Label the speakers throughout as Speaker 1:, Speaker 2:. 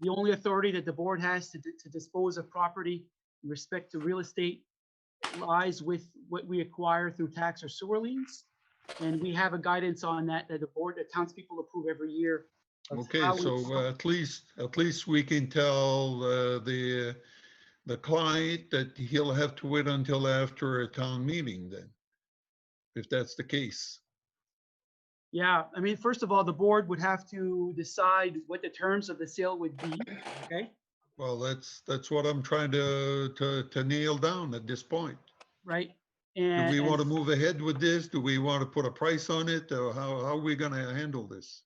Speaker 1: the only authority that the board has to, to dispose of property in respect to real estate lies with what we acquire through tax or sewer liens. And we have a guidance on that, that the board, the townspeople approve every year. of
Speaker 2: Okay,
Speaker 1: how we-
Speaker 2: so uh, at least, at least we can tell uh, the, the client that he'll have to wait until after a town meeting then. If that's the case.
Speaker 1: Yeah, I mean, first of all, the board would have to decide what the terms of the sale would be, okay?
Speaker 2: Well, that's, that's what I'm trying to, to, to nail down at this point.
Speaker 1: Right?
Speaker 2: Do
Speaker 1: And.
Speaker 2: we
Speaker 1: and-
Speaker 2: want to move ahead with this? Do we want to put a price on it? Or how, how are we gonna handle this?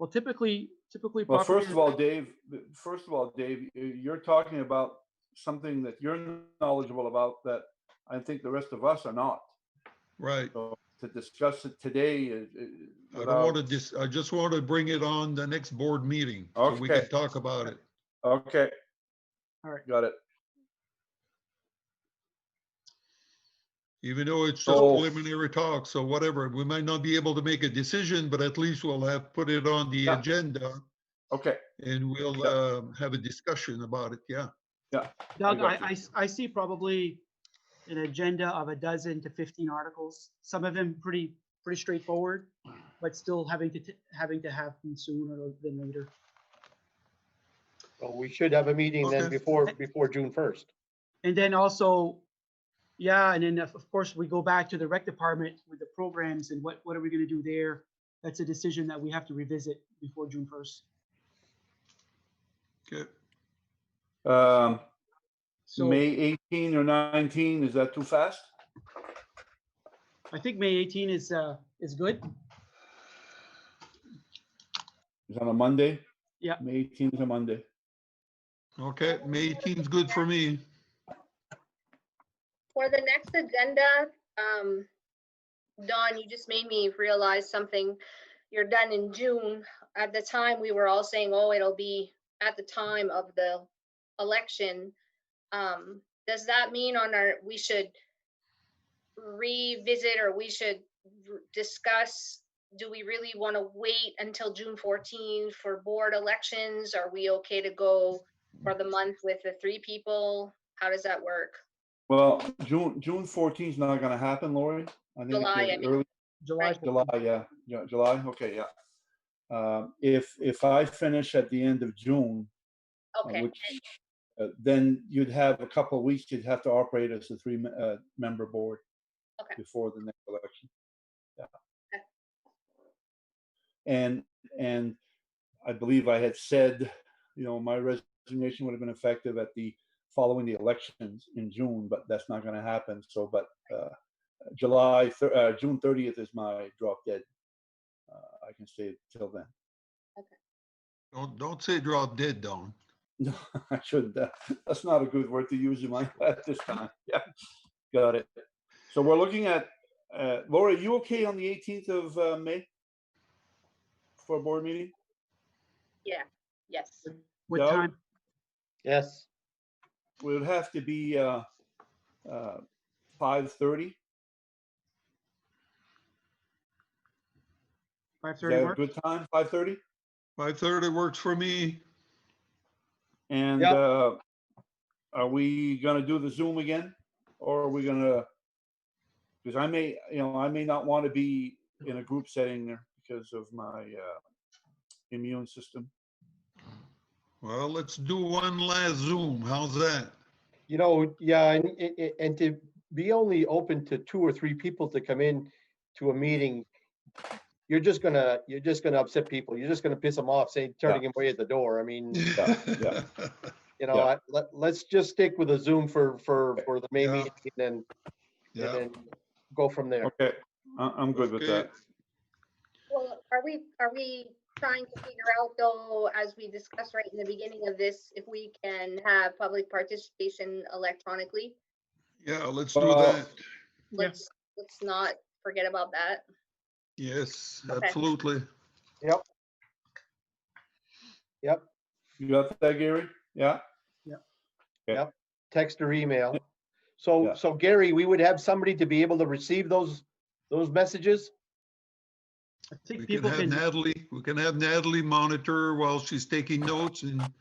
Speaker 1: Well, typically, typically.
Speaker 3: Well,
Speaker 1: property
Speaker 3: first of all, Dave, first of all, Dave, you- you're talking about something that you're knowledgeable about that I think the rest of us are not.
Speaker 2: Right,
Speaker 3: To discuss it today uh, is. is
Speaker 2: I don't want to
Speaker 3: without-
Speaker 2: just, I just want to bring it on the next board meeting. so We
Speaker 3: Okay.
Speaker 2: can talk about it.
Speaker 3: Okay.
Speaker 1: All right.
Speaker 3: Got it.
Speaker 2: Even though it's just
Speaker 3: So-
Speaker 2: preliminary talk, so whatever, we might not be able to make a decision, but at least we'll have put it on the
Speaker 3: Yeah.
Speaker 2: agenda
Speaker 3: Okay.
Speaker 2: and we'll
Speaker 3: Yeah.
Speaker 2: um, have a discussion about it, yeah.
Speaker 1: Doug, I,
Speaker 3: got
Speaker 1: I, s- I see probably an agenda of a dozen to fifteen articles, some of them pretty, pretty straightforward, but still having to, t- having to happen sooner than later.
Speaker 4: Well, we should have a meeting then
Speaker 2: Okay.
Speaker 4: before, before June first.
Speaker 1: And then also, yeah, and then of of course, we go back to the rec department with the programs and what, what are we gonna do there? That's a decision that we have to revisit before June first.
Speaker 2: Okay,
Speaker 3: Um,
Speaker 1: So
Speaker 3: May 18 or 19, is that too fast?
Speaker 1: I think May eighteen is, uh, is good.
Speaker 3: Is that a Monday?
Speaker 1: Yeah.
Speaker 3: May 18 is a Monday.
Speaker 2: okay, May 18th's good for me.
Speaker 5: For the next agenda, um, Don, you just made me realize something. You're done in June. At the time, we were all saying, oh, it'll be at the time of the election. Um, does that mean on our, we should revisit or we should r- discuss? Do we really want to wait until June 14 for board elections? Are we okay to go for the month with the three people? How does that work?
Speaker 3: Well, June, June 14 is not going to happen, Lori. I think
Speaker 5: July, I
Speaker 3: the
Speaker 5: mean.
Speaker 3: early-
Speaker 1: July.
Speaker 5: Right.
Speaker 3: July, yeah, yeah, July, okay, yeah. Um, If, if I finish at the end of June, uh,
Speaker 5: Okay.
Speaker 3: which, uh, then you'd have a couple of weeks, you'd have to operate as a three-member board
Speaker 5: Okay.
Speaker 3: before the next election. Yeah.
Speaker 5: Okay.
Speaker 3: And, and I believe I had said, you know, my resignation would have been effective at the, following the elections in June, but that's not going to happen, so, but uh, July, thir- uh, June 30th is my drop dead. Uh, I can stay till then.
Speaker 2: Don't, don't say drop dead, Don.
Speaker 3: No, I shouldn't. That- That's not a good word to use in my, at this time. Yeah, got it. So we're looking at, uh, Laura, you okay on the 18th of uh, May? For a board meeting?
Speaker 5: Yes.
Speaker 1: What
Speaker 3: Doug?
Speaker 1: time?
Speaker 4: Yes,
Speaker 3: It would have to be uh, uh, 5:30. Is
Speaker 1: Five thirty
Speaker 3: that a
Speaker 1: work?
Speaker 3: good time? 5:30?
Speaker 2: 5:30 works for me.
Speaker 3: And
Speaker 4: Yep.
Speaker 3: uh, are we gonna do the Zoom again? Or are we gonna? Because I may, you know, I may not want to be in a group setting there because of my uh, immune system.
Speaker 2: Well, let's do one last Zoom. How's that?
Speaker 4: you know, yeah, and, i- i- and to be only open to two or three people to come in to a meeting, you're just gonna, you're just gonna upset people. You're just gonna piss them off, say, turning them away at the door. I mean,
Speaker 3: Yeah,
Speaker 4: you
Speaker 3: Yeah.
Speaker 4: know, I- let, let's just stick with a Zoom for, for, for the main
Speaker 2: Yeah.
Speaker 4: meeting and then, and
Speaker 2: Yeah,
Speaker 4: then go from there.
Speaker 3: Okay, I- I'm good with that.
Speaker 2: Okay.
Speaker 5: Well, are we, are we trying to figure out though, as we discussed right in the beginning of this, if we can have public participation electronically?
Speaker 2: yeah, let's do
Speaker 3: Well-
Speaker 2: that.
Speaker 1: Yeah.
Speaker 5: Let's, let's not forget about that.
Speaker 2: Yes,
Speaker 5: Okay.
Speaker 2: absolutely.
Speaker 3: You got that, Gary? Yeah?
Speaker 4: text or email. So,
Speaker 3: Yeah.
Speaker 4: so Gary, we would have somebody to be able to receive those, those messages?
Speaker 1: I
Speaker 2: We
Speaker 1: think
Speaker 2: can
Speaker 1: people
Speaker 2: have
Speaker 1: can.
Speaker 2: Natalie, we can have Natalie monitor while she's taking notes and